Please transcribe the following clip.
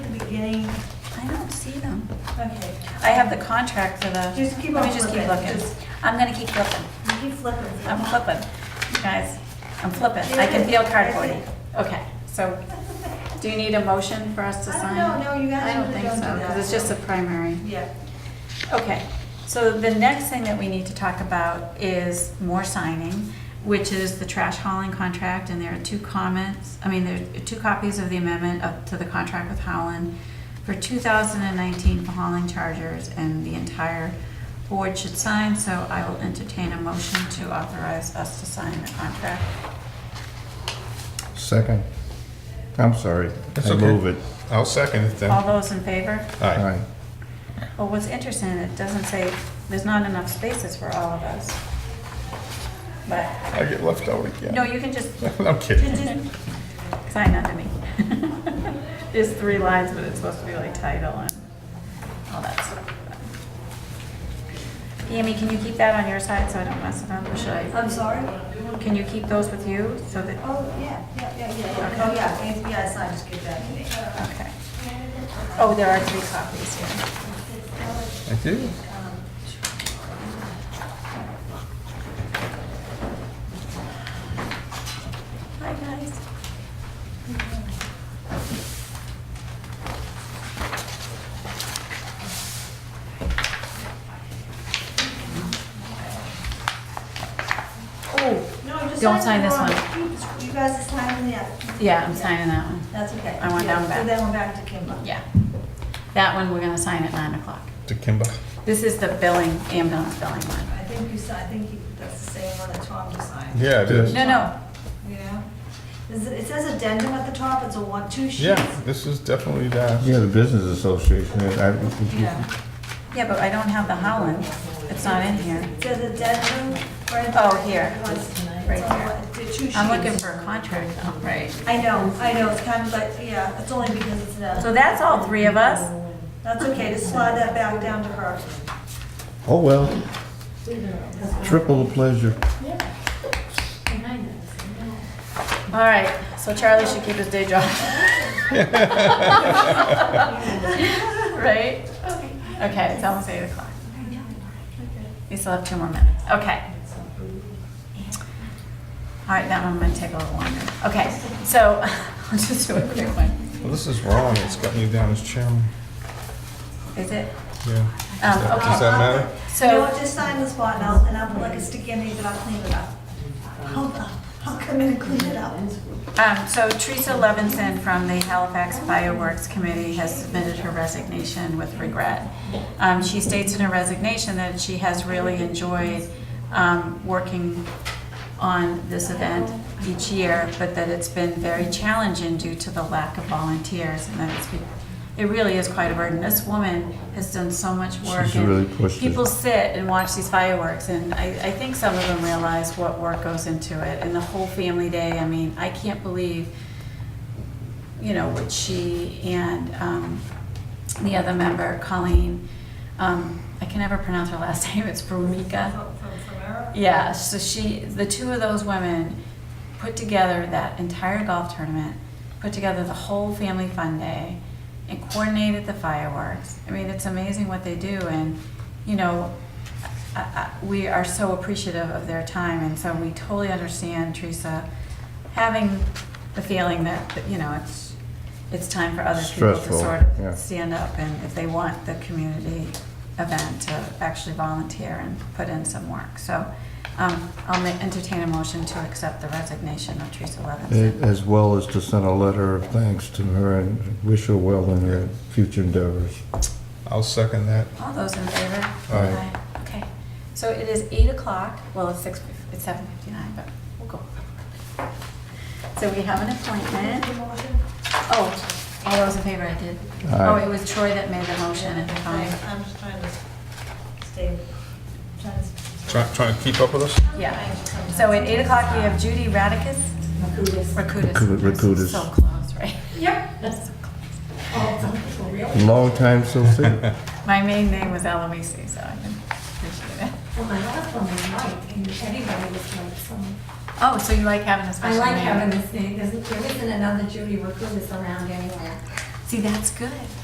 beginning? I don't see them. Okay, I have the contract for the, just keep on let me just keep flipping. looking. Oh, Just I'm gonna keep flipping. Keep flipping. I'm flipping, guys. I'm flipping. I can feel cardboardy. Okay, so do you need a motion for us to I sign? don't know, no, you guys I don't usually think don't so, do that. because it's just a primary. Yeah, Okay, so the next thing that we need to talk about is more signing, which is the trash hauling contract, and there are two comments, I mean, there are two copies of the amendment up to the contract with Howland for two thousand and nineteen for hauling chargers, and the entire board should sign, so I will entertain a motion to authorize us to sign the contract. Second. I'm sorry. That's I okay. move it. I'll second it then. All those in favor? Aye. Aye. Well, what's interesting, it doesn't say, there's not enough spaces for all of us. But, I get left out no, again. you can just I'm kidding. Sign under me. There's three lines, but it's supposed to be like title and all that stuff. Amy, can you keep that on your side so I don't mess it up, or should I? I'm sorry? Can you keep those with you so that, Oh, yeah, yeah, yeah, yeah, oh, yeah, it's- yeah, it's not, just give that to me. okay. Oh, there are three copies here. I do. Hi, guys. Oh, No, just Don't sign sign the this one. You guys are signing that. yeah, I'm signing that one. That's okay. I want that Yeah, one back. So that one back to Kimball. Yeah. That one, we're gonna sign at nine o'clock. To Kimber. This is the billing, ambulance billing one. I think you si- I think you, that's the same one that Tom just signed, Yeah, it is. No, no, you know? Is It it says addendum at the top, it's a one, two sheets. Yeah, this is definitely that. Yeah, the business association, I, Yeah. yeah, but I don't have the Holland. It's not in here. It says addendum right at the. Oh, here. one- Right it's on here. one- the two sheets. I'm looking for a contract, though, right? I know, I know, it's kind of like, yeah, it's only because it's an. So that's all three of us? That's okay, just slide that back down to her. oh, well. Triple the pleasure. All right, so Charlie should keep his day job. Right? Okay, it's almost eight o'clock. We still have two more minutes, okay. All right, that one might take a little longer. Okay, so, I'll just do a quick one. Well, this is wrong. It's got me down as chairman. Is it? Yeah. Um, Does that- Does okay. that matter? So. Uh, You know what, just sign this one, and I'll, and I'll put like a sticky in it, I'll clean it up. I'll, I'll come in and clean it up. Um, So Teresa Levinson from the Halifax Fireworks Committee has submitted her resignation with regret. Um, She states in her resignation that she has really enjoyed um, working on this event each year, but that it's been very challenging due to the lack of volunteers, and that it's, be- it really is quite a burden. This woman has done so much work. She's and really pushed it. People sit and watch these fireworks, and I, I think some of them realize what work goes into it, and the whole family day, I mean, I can't believe, you know, what she and, um, the other member, Colleen, um, I can never pronounce her last name, it's Brumica. From, from, from her? Yeah, so she, the two of those women put together that entire golf tournament, put together the whole family fun day, and coordinated the fireworks. I mean, it's amazing what they do, and, you know, I, I, we are so appreciative of their time, and so we totally understand Teresa having the feeling that, that, you know, it's, it's time for other people to Stressful, sort of yeah. stand up and if they want the community event to actually volunteer and put in some work. So um, I'll ma- entertain a motion to accept the resignation of Teresa A- Levinson. As well as to send a letter of thanks to her and wish her well in her future endeavors. I'll second that. All those in favor? Aye. Aye. Okay, so it is eight o'clock, well, it's six, fif- it's seven fifty-nine, but we'll go. So we have an appointment. Oh, all those in favor, I did. Aye. Oh, it was Troy that made the motion at the time. I'm just trying to stay, trying to. Try- Trying to keep up with us? Yeah. So at eight o'clock, we have Judy Radicus. Rakutis. Raku- Rakutis. So close, right? Long time so see. My main name was Eloisi, so I can appreciate it. Well, my last one was Mike, and everybody was like, some, Oh, so you like having a I special name? like having this name, there's, there isn't another Judy Rakutis around anywhere. See, that's good.